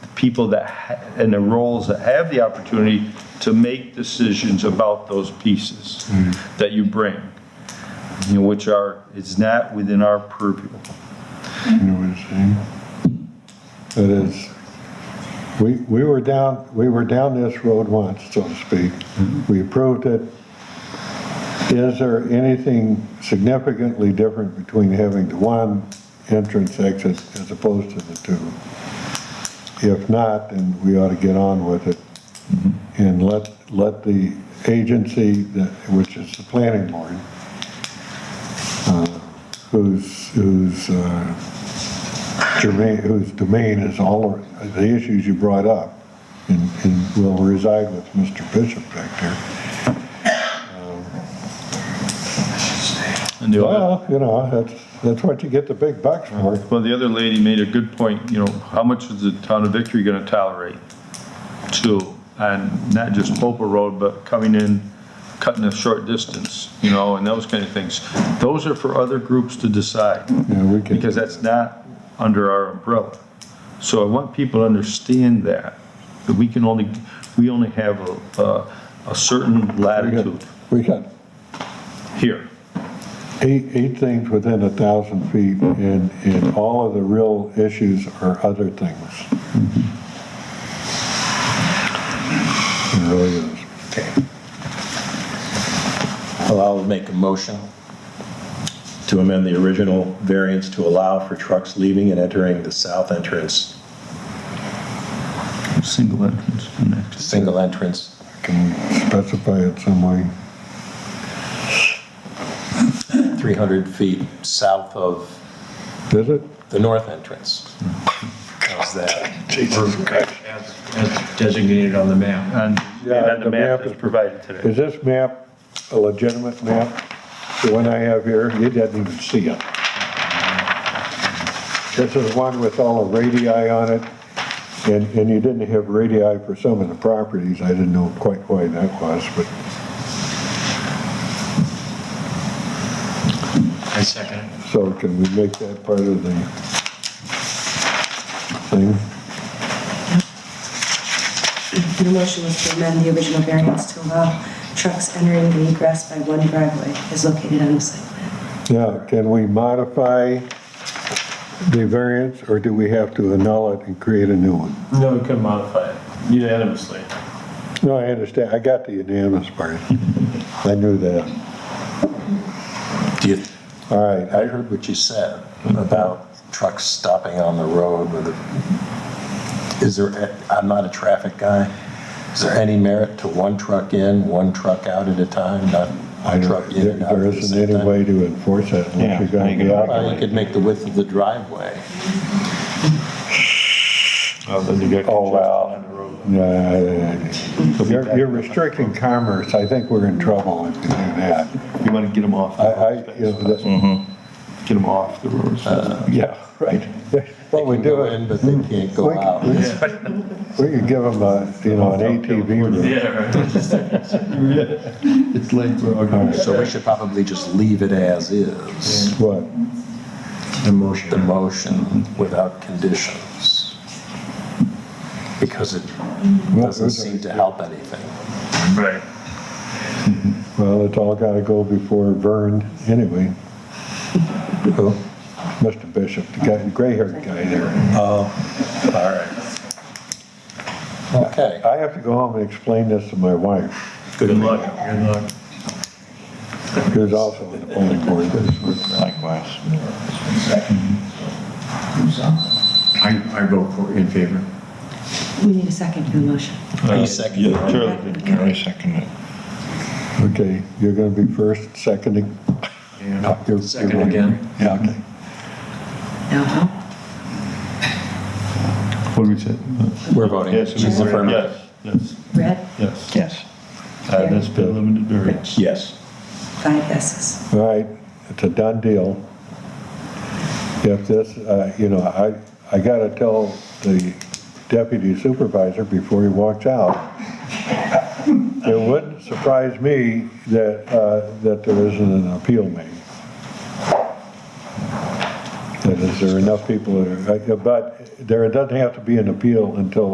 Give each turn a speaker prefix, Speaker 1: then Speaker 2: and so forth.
Speaker 1: people that, ha- and the roles that have the opportunity to make decisions about those pieces
Speaker 2: Mm.
Speaker 1: that you bring, you know, which are, it's not within our purview.
Speaker 2: You know what I'm saying? It is, we, we were down, we were down this road once, so to speak. We approved it. Is there anything significantly different between having the one entrance exit as opposed to the two? If not, then we ought to get on with it and let, let the agency, that- which is the planning board, uh, whose, whose uh, germane, whose domain is all of the issues you brought up and, and will reside with Mr. Bishop back there.
Speaker 1: And the other,
Speaker 2: Well, you know, that's, that's what you get the big bucks for.
Speaker 1: well, the other lady made a good point, you know, how much is the town of Victory gonna tolerate? Too, and not just Popa Road, but coming in, cutting a short distance, you know, and those kind of things. Those are for other groups to decide.
Speaker 2: Yeah, we can-
Speaker 1: because that's not under our umbrella. So I want people to understand that, that we can only, we only have a, a, a certain
Speaker 2: we got-
Speaker 1: latitude
Speaker 2: We got
Speaker 1: here.
Speaker 2: eight, eight things within a thousand feet and, and all of the real issues are other things. It really is.
Speaker 3: Okay. Well, I'll make a motion to amend the original variance to allow for trucks leaving and entering the south entrance,
Speaker 1: Single entrance connected.
Speaker 3: single entrance.
Speaker 2: Can we specify it some way?
Speaker 3: 300 feet south of
Speaker 2: Is it?
Speaker 3: the north entrance. How's that?
Speaker 2: Jesus Christ.
Speaker 4: as as designated on the map.
Speaker 1: And, and
Speaker 2: Yeah,
Speaker 1: on the map is
Speaker 2: is-
Speaker 1: provided today.
Speaker 2: Is this map a legitimate map? The one I have here, you didn't even see it. This is one with all the radii on it, and, and you didn't have radii for some of the properties. I didn't know quite why that was, but
Speaker 4: I second it.
Speaker 2: so can we make that part of the thing?
Speaker 5: Your motion was to amend the original variance to allow trucks entering and egress by one driveway is located on the site plan.
Speaker 2: Now, can we modify the variance, or do we have to annul it and create a new one?
Speaker 6: No, we couldn't modify it unanimously.
Speaker 2: No, I understand. I got the unanimous part. I knew that.
Speaker 3: Do you,
Speaker 2: All right,
Speaker 3: I
Speaker 2: I-
Speaker 3: heard what you said about trucks stopping on the road with a, is there, I'm not a traffic guy. Is there any merit to one truck in, one truck out at a time, not
Speaker 2: I
Speaker 3: one
Speaker 2: know,
Speaker 3: truck in
Speaker 2: there
Speaker 3: and out
Speaker 2: there
Speaker 3: at the
Speaker 2: isn't
Speaker 3: same
Speaker 2: any
Speaker 3: time?
Speaker 2: way to enforce that
Speaker 1: Yeah,
Speaker 2: unless you're
Speaker 1: how you
Speaker 2: going
Speaker 1: gonna
Speaker 2: to be
Speaker 3: Well, you
Speaker 2: out.
Speaker 3: could make the width of the driveway.
Speaker 2: Oh, wow. Yeah, yeah, yeah. You're you're restricting commerce. I think we're in trouble if you do that.
Speaker 1: You wanna get them off.
Speaker 2: I, I, you know, that-
Speaker 1: Get them off the roads.
Speaker 2: yeah, right. What we
Speaker 3: They can go
Speaker 2: do
Speaker 3: in,
Speaker 2: is,
Speaker 3: But they can't
Speaker 2: we
Speaker 3: go out.
Speaker 2: we could give them a, you know, an ATV. route.
Speaker 6: Yeah, right.
Speaker 1: It's late, we're all going.
Speaker 3: So we should probably just leave it as is,
Speaker 2: What?
Speaker 4: The motion.
Speaker 3: the motion without conditions. Because it doesn't seem to help anything.
Speaker 6: Right.
Speaker 2: Well, it's all got to go before Vern anyway.
Speaker 3: Who?
Speaker 2: Mr. Bishop, the guy, the gray-haired guy there.
Speaker 3: All right. Okay.
Speaker 2: I have to go home and explain this to my wife,
Speaker 4: Good luck, good luck.
Speaker 2: who's also on the planning board.
Speaker 4: Likewise. I, I vote for, in favor.
Speaker 5: We need a second for the motion.
Speaker 4: Uh,
Speaker 3: Are you seconding?
Speaker 4: I second it.
Speaker 2: Okay, you're gonna be first, seconding? No, you're- you're
Speaker 4: Second
Speaker 2: right.
Speaker 4: again.
Speaker 2: Yeah, okay.
Speaker 5: No,
Speaker 1: What do we say?
Speaker 3: We're voting.
Speaker 1: Yes,
Speaker 3: She's
Speaker 1: we're-
Speaker 3: affirmative.
Speaker 1: yes, yes,
Speaker 5: red,
Speaker 1: yes.
Speaker 4: Yes.
Speaker 1: Uh, that's been limited variance.
Speaker 4: Yes.
Speaker 5: five yeses.
Speaker 2: All right, it's a done deal. If this, uh, you know, I, I gotta tell the deputy supervisor before he walks out, it wouldn't surprise me that, uh, that there isn't an appeal made. uh, That is, there are enough people, that are- but there doesn't have to be an appeal until